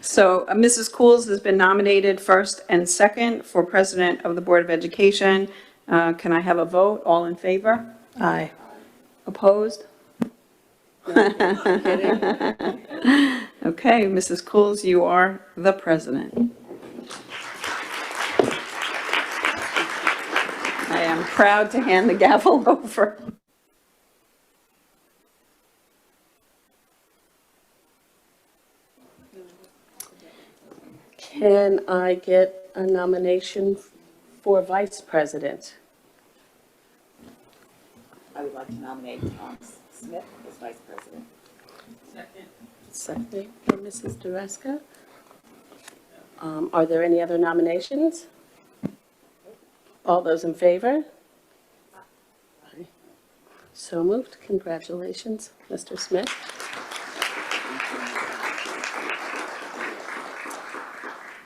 So uh, Mrs. Coles has been nominated first and second for President of the Board of Education. Uh, Can I have a vote? All in favor? Aye. Opposed? Okay, Mrs. Coles, you are the president. I am proud to hand the gavel over. Can I get a nomination for vice president? I would like to nominate Tom Smith as vice president. Second for Mrs. Dreska. Um, Are there any other nominations? All those in favor? Aye. So moved. Congratulations, Mr. Smith.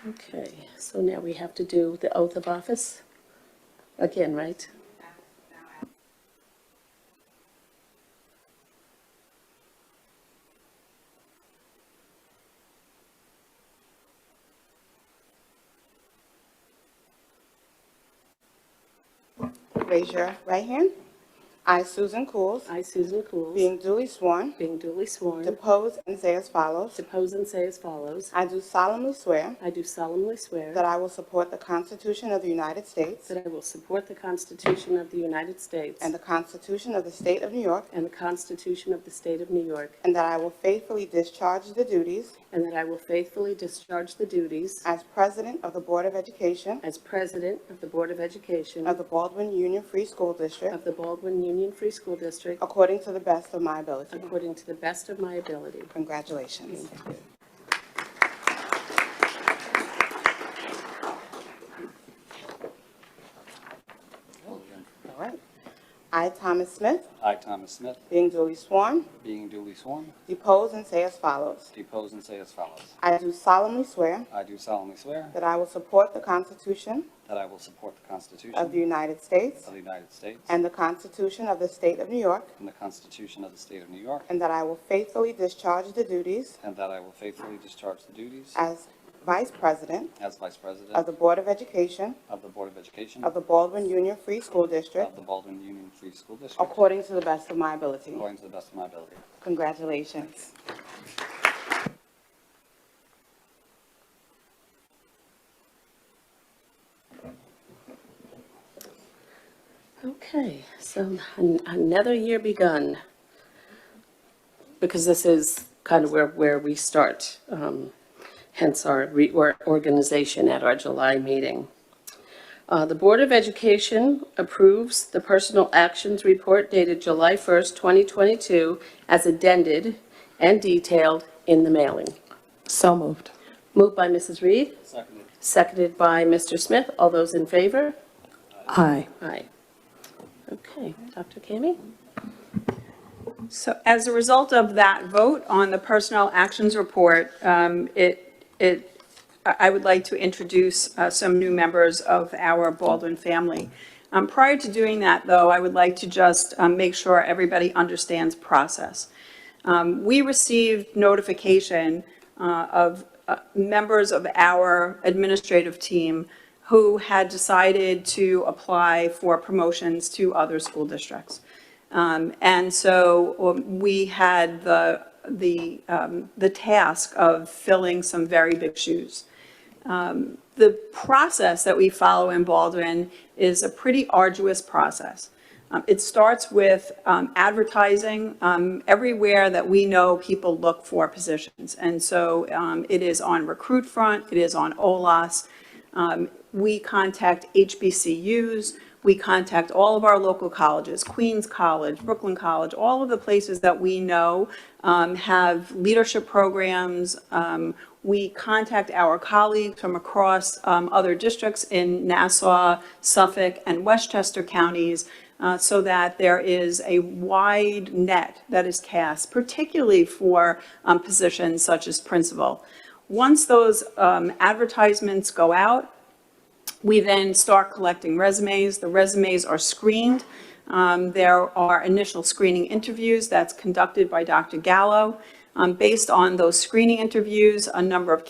Okay, so now we have to do the oath of office again, right? Raise your right hand. I, Susan Cools, I, Susan Cools, being duly sworn, being duly sworn, depose and say as follows. depose and say as follows. I do solemnly swear I do solemnly swear that I will support the Constitution of the United States that I will support the Constitution of the United States and the Constitution of the State of New York, and the Constitution of the State of New York, and that I will faithfully discharge the duties and that I will faithfully discharge the duties as President of the Board of Education as President of the Board of Education of the Baldwin Union Free School District of the Baldwin Union Free School District according to the best of my ability. according to the best of my ability. Congratulations. All right. I, Thomas Smith, I, Thomas Smith, being duly sworn, being duly sworn, depose and say as follows. depose and say as follows. I do solemnly swear I do solemnly swear that I will support the Constitution that I will support the Constitution of of the United States the United States and the Constitution of the State of New York, and the Constitution of the State of New York, and that I will faithfully discharge the duties and that I will faithfully discharge the duties as Vice President as Vice of President the Board of Education of the Board of Education of of the Baldwin Union Free School District the Baldwin Union Free School District, According to the best of my ability. according to the best of my ability. Congratulations. Okay, so an- another year begun. Because this is kind of where, where we start, um, hence our reorganization at our July meeting. Uh, The Board of Education approves the Personal Actions Report dated July 1st, 2022, as addended and detailed in the mailing. So moved. Moved by Mrs. Reed, Seconded. seconded by Mr. Smith. All those in favor? Aye. Aye. Okay, Dr. Kami? So as a result of that vote on the Personnel Actions Report, um, it, it, I I would like to introduce uh, some new members of our Baldwin family. Um, Prior to doing that, though, I would like to just um, make sure everybody understands process. Um, We received notification uh, of uh, members of our administrative team who had decided to apply for promotions to other school districts. Um, And so um, we had the, the, um, the task of filling some very big shoes. Um, The process that we follow in Baldwin is a pretty arduous process. Um, It starts with um, advertising um, everywhere that we know people look for positions. And so um, it is on Recruit Front, it is on OLAS, um, We contact HBCUs, we contact all of our local colleges, Queens College, Brooklyn College, all of the places that we know um, have leadership programs. Um, We contact our colleagues from across um, other districts in Nassau, Suffolk, and Westchester counties uh, so that there is a wide net that is cast, particularly for um, positions such as principal. Once those um, advertisements go out, we then start collecting resumes. The resumes are screened. Um, There are initial screening interviews that's conducted by Dr. Gallo. Um, Based on those screening interviews, a number of